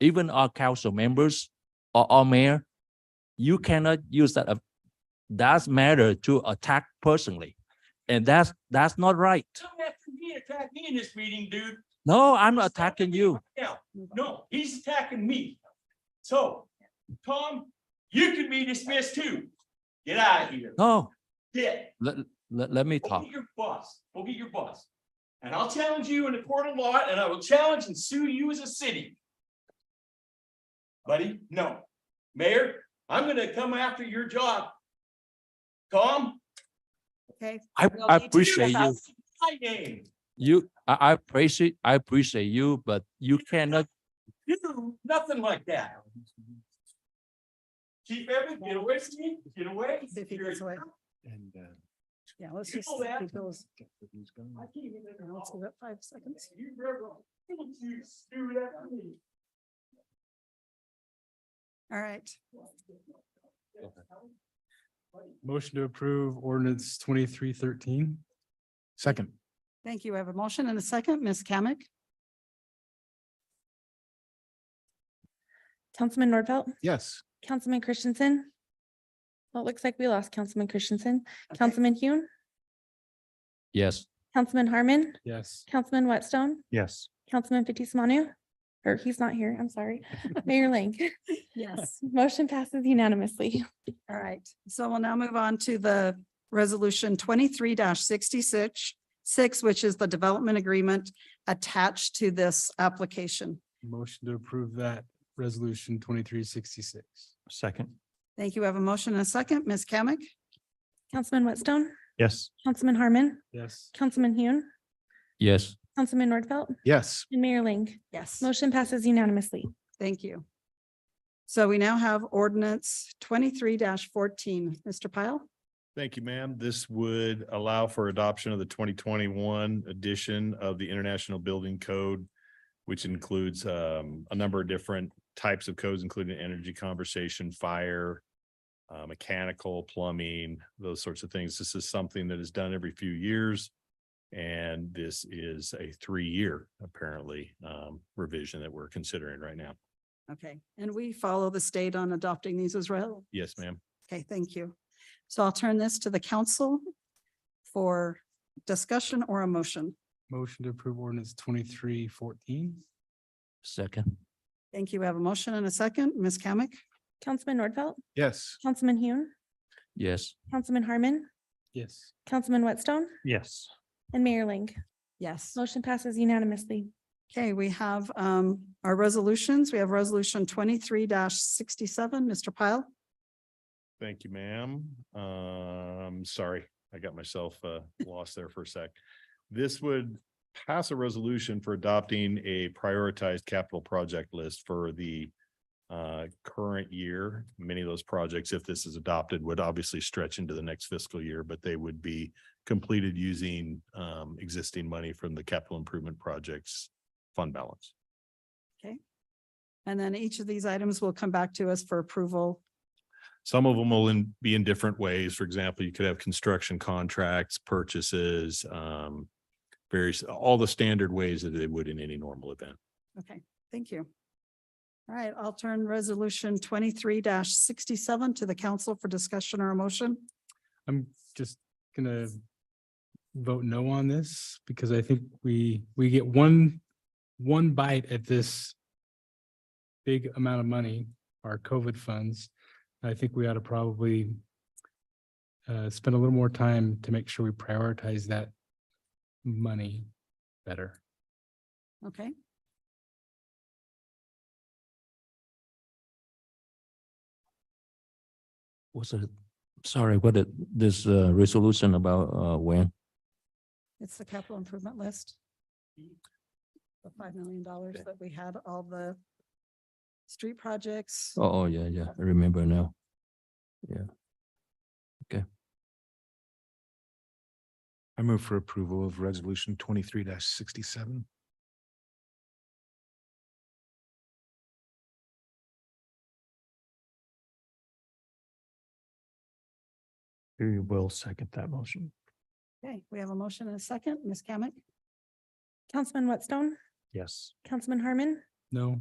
even our council members or our mayor, you cannot use that, uh, that matter to attack personally. And that's, that's not right. Don't have to be attacking me in this meeting, dude. No, I'm not attacking you. Now, no, he's attacking me. So, Tom, you can be dismissed too. Get out of here. No, Get. let, let, let me Go talk. get your boss. Go get your boss. And I'll challenge you in a court of law and I will challenge and sue you as a city. Buddy, no. Mayor, I'm gonna come after your job. Tom, Okay. I, Well, I you do appreciate you. have- my name. You, I, I appreciate, I appreciate you, but you cannot, You do nothing like that. Keep everything, get away from me, get away. See if he You're- gets away. And uh, Yeah, let's You just, know that. it goes, get the news going. I can't even- let's give it five seconds. You never, you do that to me. All right. Motion to approve ordinance twenty-three thirteen. Second. Thank you. I have a motion and a second. Ms. Kamic? Councilman Nordfelt, Yes. Councilman Christensen. Well, it looks like we lost Councilman Christensen, Okay. Councilman Hune, yes. Councilman Harmon, Yes. Councilman Whitestone, Yes. Councilman Fitzie Umanu. Or he's not here, I'm sorry, Mayor Ling. Yes. Motion passes unanimously. All right. So we'll now move on to the resolution twenty-three sixty-six, six, which is the development agreement attached to this application. Motion to approve that resolution twenty-three sixty-six. Second. Thank you. I have a motion and a second. Ms. Kamic? Councilman Whitestone, Yes. Councilman Harmon, Yes. Councilman Hune, Yes, Councilman Nordfelt, Yes. and Mayor Ling. Yes. Motion passes unanimously. Thank you. So we now have ordinance twenty-three fourteen. Mr. Pyle? Thank you, ma'am. This would allow for adoption of the twenty twenty-one edition of the International Building Code, which includes um, a number of different types of codes, including energy conversation, fire, uh, mechanical, plumbing, those sorts of things. This is something that is done every few years. And this is a three-year, apparently, um, revision that we're considering right now. Okay. And we follow the state on adopting these as well. Yes, ma'am. Okay, thank you. So I'll turn this to the council for discussion or a motion. Motion to approve ordinance twenty-three fourteen. second, Thank you. We have a motion and a second. Ms. Kamic? Councilman Nordfelt, Yes. Councilman Hune, yes. Councilman Harmon, Yes. Councilman Whitestone, Yes. and Mayor Ling. Yes. Motion passes unanimously. Okay, we have um our resolutions. We have resolution twenty-three sixty-seven. Mr. Pyle? Thank you, ma'am. Um, sorry, I got myself uh lost there for a sec. This would pass a resolution for adopting a prioritized capital project list for the uh current year. Many of those projects, if this is adopted, would obviously stretch into the next fiscal year, but they would be completed using um existing money from the capital improvement projects fund balance. And then each of these items will come back to us for approval. Some of them will in, be in different ways. For example, you could have construction contracts, purchases, um, various, all the standard ways that they would in any normal event. Okay, thank you. All right, I'll turn resolution twenty-three sixty-seven to the council for discussion or a motion. I'm just gonna vote no on this because I think we, we get one, one bite at this big amount of money, our COVID funds. I think we ought to probably uh, spend a little more time to make sure we prioritize that money better. Okay. What's it, sorry, what it, this uh, resolution about uh, when? It's the capital improvement list. The five million dollars that we had, all the street projects. Oh, oh, yeah, yeah, I remember now. I move for approval of resolution twenty-three sixty-seven. We will second that motion. Okay, we have a motion and a second. Ms. Kamic? Councilman Whitestone, Yes. Councilman Harmon, No?